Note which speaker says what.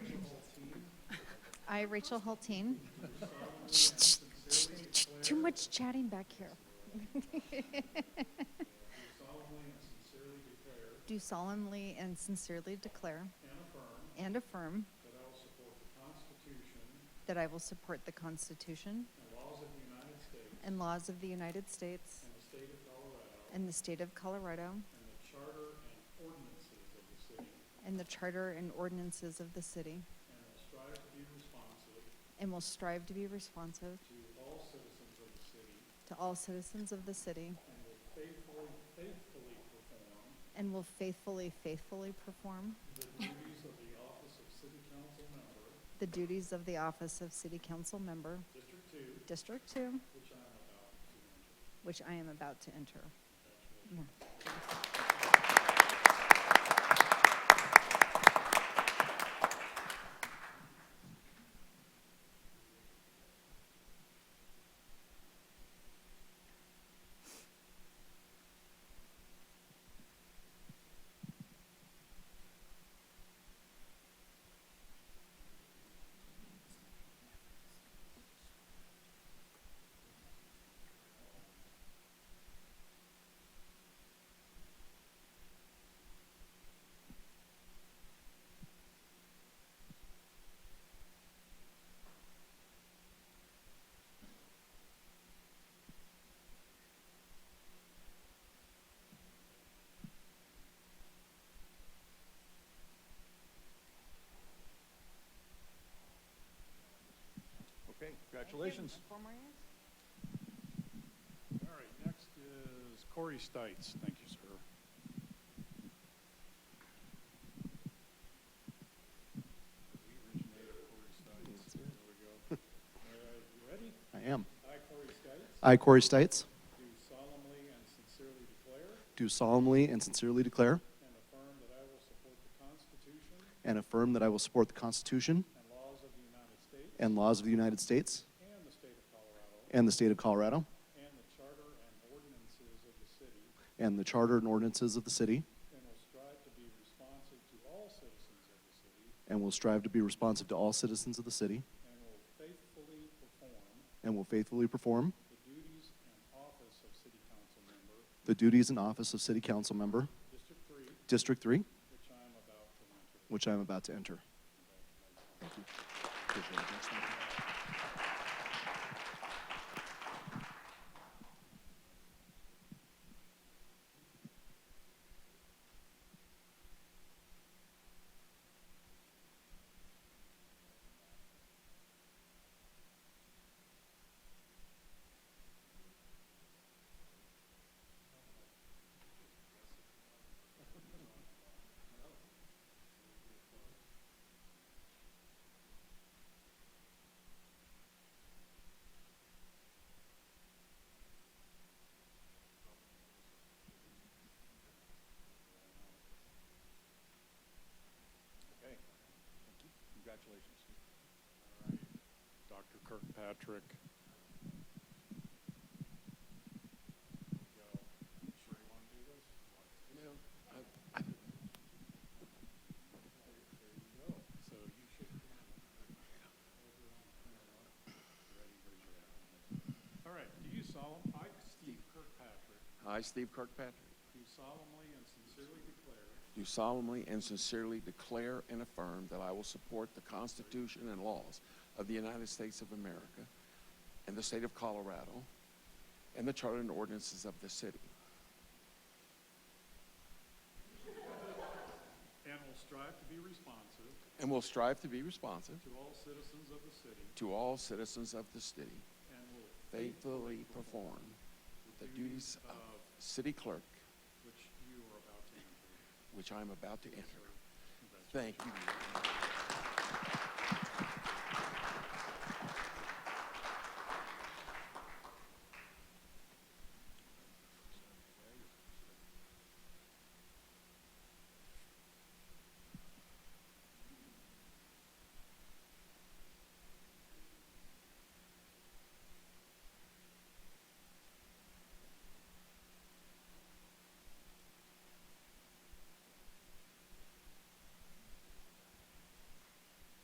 Speaker 1: I, Rachel Hulteen. Too much chatting back here.
Speaker 2: solemnly and sincerely declare
Speaker 1: Do solemnly and sincerely declare
Speaker 2: and affirm
Speaker 1: and affirm
Speaker 2: that I will support the Constitution
Speaker 1: that I will support the Constitution
Speaker 2: and laws of the United States
Speaker 1: and laws of the United States
Speaker 2: and the state of Colorado
Speaker 1: and the state of Colorado
Speaker 2: and the charter and ordinances of the city,
Speaker 1: and the charter and ordinances of the city,
Speaker 2: and will strive to be
Speaker 1: and will strive to be responsive
Speaker 2: responsive to all citizens of the city,
Speaker 1: to all citizens of the city,
Speaker 2: and will faithfully,
Speaker 1: and will faithfully, faithfully
Speaker 2: faithfully perform
Speaker 1: perform
Speaker 2: the duties of the office of city council member,
Speaker 1: the duties of the office of City Council Member,
Speaker 2: District
Speaker 1: District
Speaker 2: Two,
Speaker 1: 2,
Speaker 2: which I am about to enter.
Speaker 1: which I am about to enter.
Speaker 2: Congratulations.
Speaker 3: Okay, congratulations.
Speaker 2: All right, next is Corey Stites. Thank you, sir. We originated Corey Stites. There we go. All right, you ready?
Speaker 3: I am.
Speaker 2: I, Corey Stites,
Speaker 3: I, Corey Stites,
Speaker 2: do solemnly and sincerely declare
Speaker 3: do solemnly and sincerely declare
Speaker 2: and affirm that I will support the Constitution
Speaker 3: and affirm that I will support the Constitution
Speaker 2: and laws of the United States
Speaker 3: and laws of the United States
Speaker 2: and the state of Colorado
Speaker 3: and the state of Colorado
Speaker 2: and the charter and ordinances of the city
Speaker 3: and the charter and ordinances of the city
Speaker 2: and will strive to be responsive to all citizens of the city
Speaker 3: and will strive to be responsive to all citizens of the city
Speaker 2: And will faithfully perform
Speaker 3: and will faithfully perform
Speaker 2: the duties and office of city council member,
Speaker 3: the duties and office of City Council Member,
Speaker 2: District Three,
Speaker 3: District 3,
Speaker 2: which I am about to enter.
Speaker 3: which I am about to enter. Thank you. Appreciate it. Thanks, Michael. Okay, thank you. Congratulations.
Speaker 2: Dr. Kirkpatrick. There we go. Sure you want to do this? There there you go. So you should. Ready, raise your hand. All right, do you solemn, I, Steve Kirkpatrick,
Speaker 4: I, Steve Kirkpatrick,
Speaker 2: do solemnly and sincerely declare
Speaker 4: do solemnly and sincerely declare and affirm that I will support the Constitution and laws of the United States of America and the state of Colorado and the charter and ordinances of the city,
Speaker 2: And will strive to be responsive
Speaker 4: and will strive to be responsive
Speaker 2: to all citizens of the city
Speaker 4: to all citizens of the city,
Speaker 2: and will
Speaker 4: faithfully perform the duties of city clerk,
Speaker 2: which you are about to enter.
Speaker 4: which I am about to enter.
Speaker 2: Congratulations.
Speaker 4: Thank you.